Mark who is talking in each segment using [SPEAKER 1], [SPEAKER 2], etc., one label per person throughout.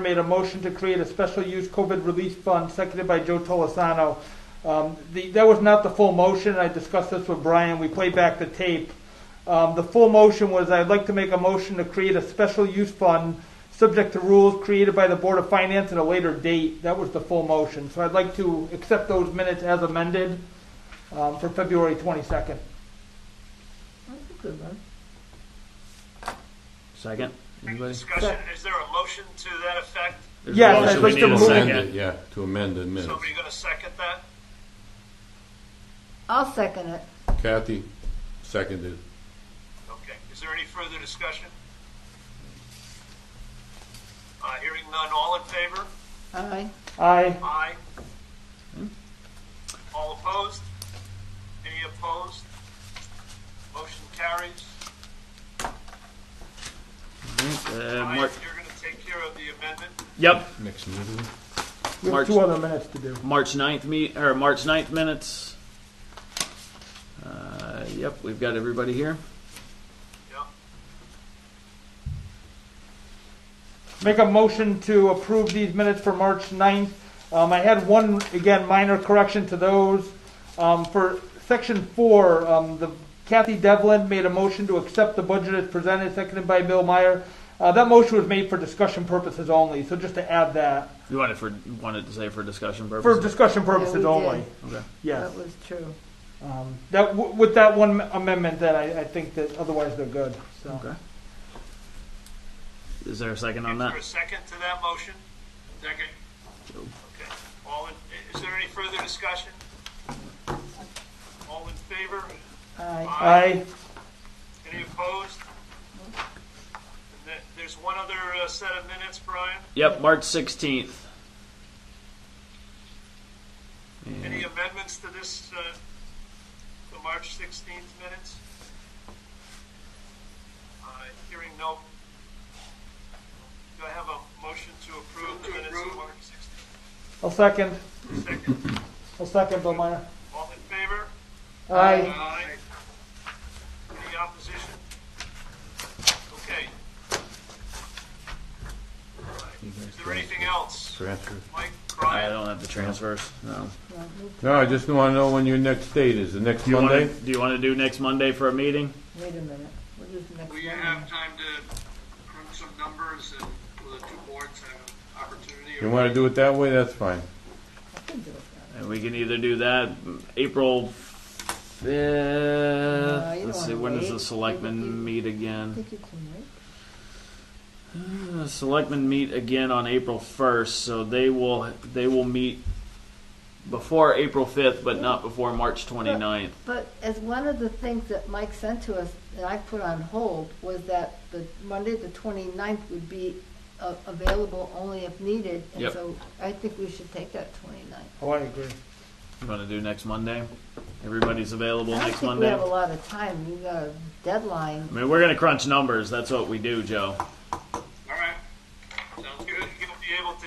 [SPEAKER 1] made a motion to create a special use COVID relief fund, seconded by Joe Tolosano. Um, the, that was not the full motion, I discussed this with Brian, we played back the tape. Um, the full motion was, I'd like to make a motion to create a special use fund, subject to rules created by the Board of Finance at a later date, that was the full motion. So I'd like to accept those minutes as amended, um, for February twenty-second.
[SPEAKER 2] That's a good one.
[SPEAKER 3] Second, anybody?
[SPEAKER 4] Discussion, is there a motion to that effect?
[SPEAKER 3] There's a
[SPEAKER 1] Yes,
[SPEAKER 3] motion.
[SPEAKER 1] I'd
[SPEAKER 5] So
[SPEAKER 1] like
[SPEAKER 5] we
[SPEAKER 1] to
[SPEAKER 5] need to
[SPEAKER 1] move
[SPEAKER 5] amend
[SPEAKER 4] it.
[SPEAKER 5] it, yeah, to amend the minutes.
[SPEAKER 4] Somebody gonna second that?
[SPEAKER 2] I'll second it.
[SPEAKER 5] Kathy seconded.
[SPEAKER 4] Okay, is there any further discussion? Uh, hearing none, all in favor?
[SPEAKER 2] Aye.
[SPEAKER 1] Aye.
[SPEAKER 4] Aye. All opposed? Any opposed? Motion carries.
[SPEAKER 3] Uh,
[SPEAKER 4] Ryan,
[SPEAKER 3] Mar-
[SPEAKER 4] you're gonna take care of the amendment?
[SPEAKER 3] Yep,
[SPEAKER 5] Next meeting?
[SPEAKER 1] We have
[SPEAKER 3] March-
[SPEAKER 1] two other minutes to do.
[SPEAKER 3] March 9th meet, or March 9th minutes. Uh, yep, we've got everybody here.
[SPEAKER 4] Yeah.
[SPEAKER 1] Make a motion to approve these minutes for March 9th. Um, I had one, again, minor correction to those. Um, for section four, um, the Kathy Devlin made a motion to accept the budget as presented, seconded by Bill Meyer. Uh, that motion was made for discussion purposes only, so just to add that,
[SPEAKER 3] You wanted for, wanted to say for discussion
[SPEAKER 1] for
[SPEAKER 3] purposes?
[SPEAKER 1] discussion
[SPEAKER 2] Yeah,
[SPEAKER 1] purposes
[SPEAKER 2] we
[SPEAKER 1] only.
[SPEAKER 2] did.
[SPEAKER 3] Okay.
[SPEAKER 1] Yes.
[SPEAKER 2] That was true.
[SPEAKER 1] Um, that, w- with that one amendment, that I, I think that otherwise they're good, so.
[SPEAKER 3] Okay. Is there a second on
[SPEAKER 4] Is there a
[SPEAKER 3] that?
[SPEAKER 4] second to that motion? Second. Okay. All in, is there any further discussion? All in favor?
[SPEAKER 2] Aye.
[SPEAKER 1] Aye.
[SPEAKER 4] Any opposed? And there- There's one other uh, set of minutes, Brian.
[SPEAKER 3] Yep, March 16th.
[SPEAKER 4] Any amendments to this, uh, the March 16th minutes? Uh, Hearing no. Do I have a motion to approve the minutes of March 16th?
[SPEAKER 1] I'll second,
[SPEAKER 4] Second.
[SPEAKER 1] I'll second Bill Meyer.
[SPEAKER 4] All in favor?
[SPEAKER 1] Aye.
[SPEAKER 4] Aye. Any opposition? Okay. Is there anything else?
[SPEAKER 5] Transfer.
[SPEAKER 4] Mike,
[SPEAKER 3] I
[SPEAKER 4] Brian,
[SPEAKER 3] don't have the transfers, no.
[SPEAKER 5] No, I just want to know when your next date is, the next
[SPEAKER 3] Do you wanna,
[SPEAKER 5] Monday?
[SPEAKER 3] do you wanna do next Monday for a meeting?
[SPEAKER 2] Wait a minute. What is the next
[SPEAKER 6] Will you
[SPEAKER 2] one?
[SPEAKER 6] have time to crunch some numbers and will the two boards have an opportunity?
[SPEAKER 5] You want to do it that way, that's fine.
[SPEAKER 2] I can do it.
[SPEAKER 3] And we can either do that April 5th.
[SPEAKER 2] you Uh, don't
[SPEAKER 3] Let's see,
[SPEAKER 2] wanna
[SPEAKER 3] when does
[SPEAKER 2] wait.
[SPEAKER 3] the
[SPEAKER 2] You-
[SPEAKER 3] selectmen meet
[SPEAKER 5] Mm-hmm.
[SPEAKER 2] I
[SPEAKER 3] again?
[SPEAKER 2] think you can wait.
[SPEAKER 3] The selectmen meet again on April 1st, so they will, they will meet before April 5th, but not before March 29th.
[SPEAKER 2] But as one of the things that Mike sent to us that I put on hold was that the Monday, the 29th would be uh, available only if needed. And
[SPEAKER 3] Yep.
[SPEAKER 2] so I think we should take that 29th.
[SPEAKER 1] Oh, I agree.
[SPEAKER 3] You want to do next Monday? Everybody's available
[SPEAKER 2] I don't
[SPEAKER 3] next
[SPEAKER 2] think we
[SPEAKER 3] Monday?
[SPEAKER 2] have a lot of time. We've got a deadline.
[SPEAKER 3] I mean, we're going to crunch numbers. That's what we do, Joe.
[SPEAKER 4] all right. Sounds good. You'll be able to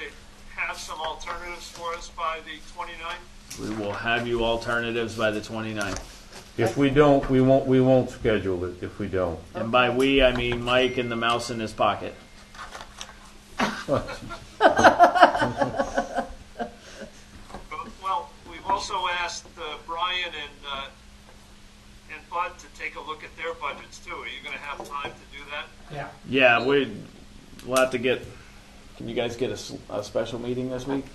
[SPEAKER 4] have some alternatives for us by the 29th?
[SPEAKER 3] We will have you alternatives by the 29th.
[SPEAKER 5] If we don't, we won't, we won't schedule it if we don't.
[SPEAKER 3] And by we, I mean Mike and the mouse in his pocket.
[SPEAKER 4] Well, we've also asked uh, Brian and, uh, and Bud to take a look at their budgets too. Are you gonna have time to do that?
[SPEAKER 3] Yeah, we, we'll have to get, can you guys get a s- a, special meeting this week?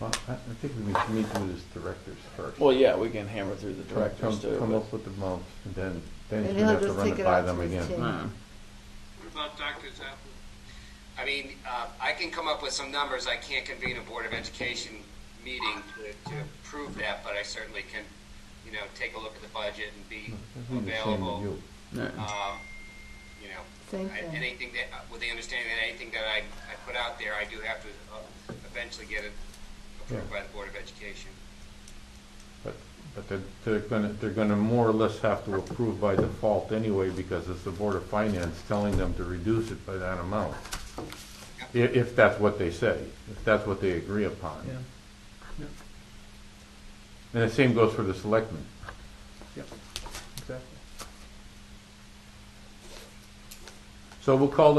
[SPEAKER 5] Well, I I think we should meet with his directors first.
[SPEAKER 3] Well, yeah, we can hammer through the
[SPEAKER 5] Come-
[SPEAKER 3] directors
[SPEAKER 5] come- Come
[SPEAKER 3] too.
[SPEAKER 5] up with the amounts, and then, then
[SPEAKER 2] And
[SPEAKER 5] you
[SPEAKER 2] he'll
[SPEAKER 5] have to
[SPEAKER 2] just
[SPEAKER 5] run
[SPEAKER 2] take
[SPEAKER 5] it
[SPEAKER 2] it
[SPEAKER 5] by
[SPEAKER 2] out
[SPEAKER 5] them
[SPEAKER 2] to his
[SPEAKER 5] again.
[SPEAKER 2] team.
[SPEAKER 3] but- Hmm.
[SPEAKER 6] What about Dr. Zappa?
[SPEAKER 7] I mean, uh, I can come up with some numbers. I can't convene a Board of Education meeting to, to approve that, but I certainly can, you know, take a look at the budget and be
[SPEAKER 5] That's what he's saying to
[SPEAKER 7] available.
[SPEAKER 5] you.
[SPEAKER 3] Yeah.
[SPEAKER 7] Um, you know,
[SPEAKER 2] Same
[SPEAKER 7] I-
[SPEAKER 2] thing.
[SPEAKER 7] anything that, uh, with the understanding that anything that I, I put out there, I do have to uh, eventually get it approved by the Board of Education.
[SPEAKER 5] But, but they're, they're gonna, they're gonna more or less have to approve by default anyway, because it's the Board of Finance telling them to reduce it by that amount. I- if that's what they say, if that's what they agree upon.
[SPEAKER 1] Yeah.
[SPEAKER 5] And the same goes for the selectmen.
[SPEAKER 1] Exactly.
[SPEAKER 5] So we'll call the